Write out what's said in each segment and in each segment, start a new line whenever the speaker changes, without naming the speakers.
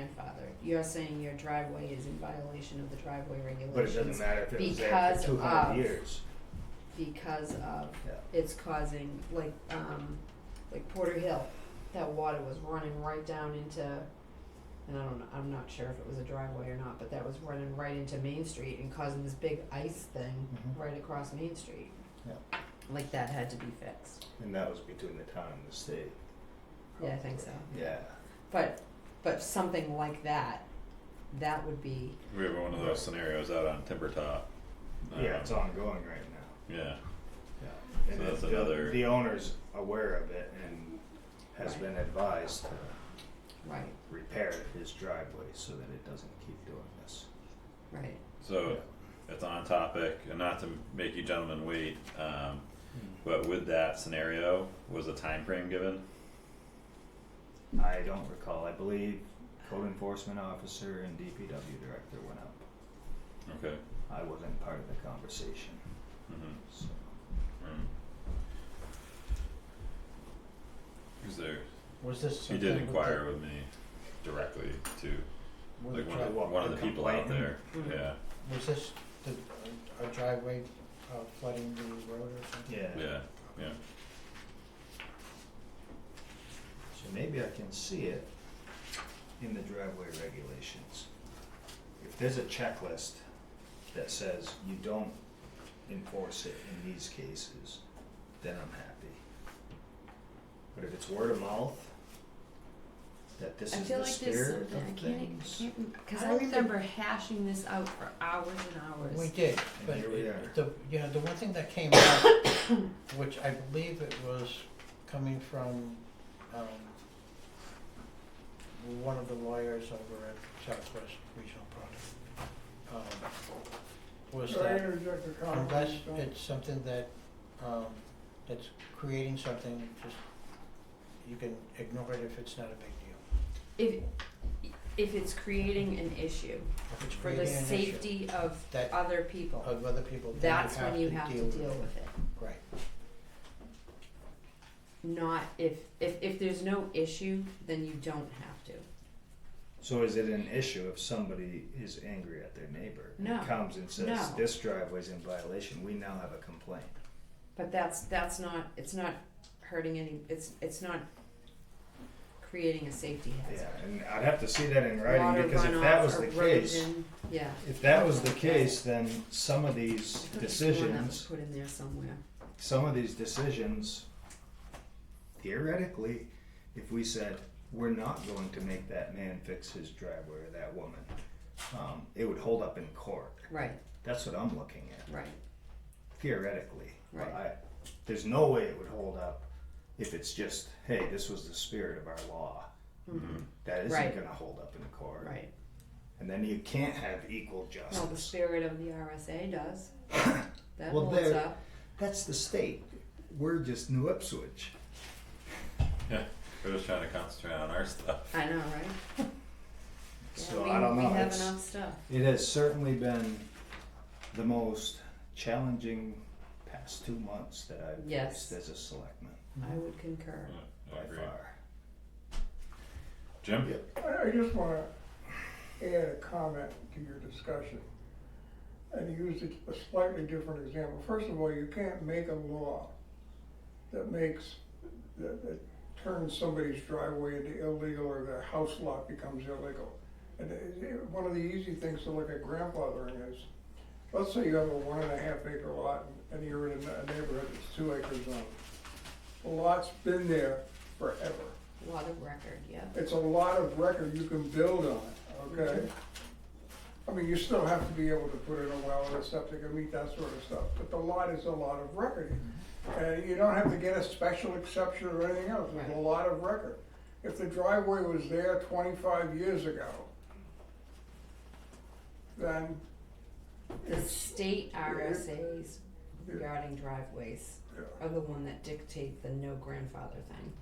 grandfathered. You're saying your driveway is in violation of the driveway regulations.
But it doesn't matter if it was there
because
for two hundred
of-
years.
Because of,
Yeah.
it's causing, like, um, like Porter Hill, that water was running right down into, and I don't know, I'm not sure if it was a driveway or not, but that was running right into Main Street and causing this big ice thing
Mhm.
right across Main Street.
Yeah.
Like that had to be fixed.
And that was between the town and the state.
Yeah, I think so.
probably. Yeah.
But, but something like that, that would be,
We were one of those scenarios out on Timber Top. Um,
Yeah, it's ongoing right now.
Yeah,
Yeah. And
So that's
the-
another-
The owner's aware of it and has
Right.
been advised to
right,
repair his driveway so that it doesn't keep doing this.
right.
so it's on topic, and not to make you gentlemen wait, um,
Yeah.
but with that scenario, was a time frame given?
Hmm.
I don't recall, I believe code enforcement officer and DPW director went up.
Okay.
I wasn't part of the conversation,
Mm-hmm.
so.
Cause there,
Was this
he
something
did
with
inquire with me directly too,
the-
like
with the
one of,
dri-
what,
one of
the Mm-hmm.
the people out
complaint?
there,
Mhm.
yeah,
Was this the, a driveway uh, flooding the road or something?
Yeah.
yeah,
So maybe I can see it in the driveway regulations. If there's a checklist that says you don't enforce it in these cases, then I'm happy. But if it's word of mouth, that this
I
is
feel
the
like there's
spirit of
something, I
things.
can't, I can't, cause
I
I
don't
remember hashing this out for hours and hours.
We did,
And
but
here we
it-
are.
the, you know, the one thing that came up, which I believe it was coming from, um, one of the lawyers over at Southwest Regional Product, um, was
Can I
that
interject a comment?
unless
Tom?
it's something that, um, that's creating something, just, you can ignore it if it's not a big deal.
If,
If it's creating an issue
If it's
for
creating
the
an issue.
safety of
That-
other people.
of other people, then
That's when you have to deal with it.
it. Right.
Not if, if, if there's no issue, then you don't have to.
So is it an issue if somebody is angry at their neighbor? and
No.
Comes and says,
No.
this driveway's in violation, we now have a complaint.
But that's, that's not, it's not hurting any, it's, it's not creating a safety hazard.
Yeah, and I'd have to see that in
Water
writing, because if that
runoff,
was the case.
erosion, Yeah.
If that was the case, then some of these
I thought there's one that was
decisions,
Put in there somewhere.
some of these decisions, theoretically, if we said, we're not going to make that man fix his driveway or that woman, um, it would hold up in court.
Right,
That's what I'm looking at,
right.
theoretically. But
Right.
I, there's no way it would hold up if it's just, hey, this was the spirit of our law.
Mhm.
That isn't
Mm-hmm. Right.
gonna hold up in court.
Right.
And then you can't have equal
Well, the
justice.
spirit of the RSA does. That
Well,
holds
there-
up.
That's the state. We're just New Ipswich.
we're just trying to concentrate on our stuff.
I know, right? Yeah,
So
we-
I don't know.
We have
It's-
enough stuff.
it has certainly been the most challenging past two months that I've
Yes.
faced as a selectman
I would concur.
Yeah, I
by
agree.
far.
Jim?
I I just wanna add a comment to your discussion. And use a- a slightly different example. First of all, you can't make a law that makes, that, that turns somebody's driveway into illegal or their house lot becomes illegal. And it- it- one of the easy things to look at grandfathering is, let's say you have a one and a half acre lot and you're in a a neighborhood that's two acres long. The lot's been there forever.
Lot of record, yeah.
It's a lot of record you can build on, okay? I mean, you still have to be able to put in a well and a septic and meet that sort of stuff, but the lot is a lot of record. And you don't have to get a special exception or anything else, it's a
Right.
lot of record. If the driveway was there twenty-five years ago, then
The
it's,
state RSAs regarding driveways
yeah.
are the one that dictate the no grandfather thing.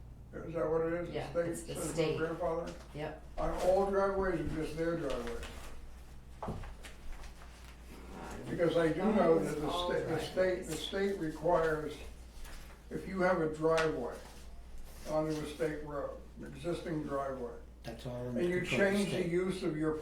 is that what it is?
Yeah,
The
it's the
state says no
state.
grandfather?
Yep.
On all driveways or just their driveways?
Uh,
Because I do know that the
All
state, the state, the
driveways.
state requires, if you have a driveway onto a state road, an existing driveway,
That's all in the
And you
control of the
change
state.
the use of your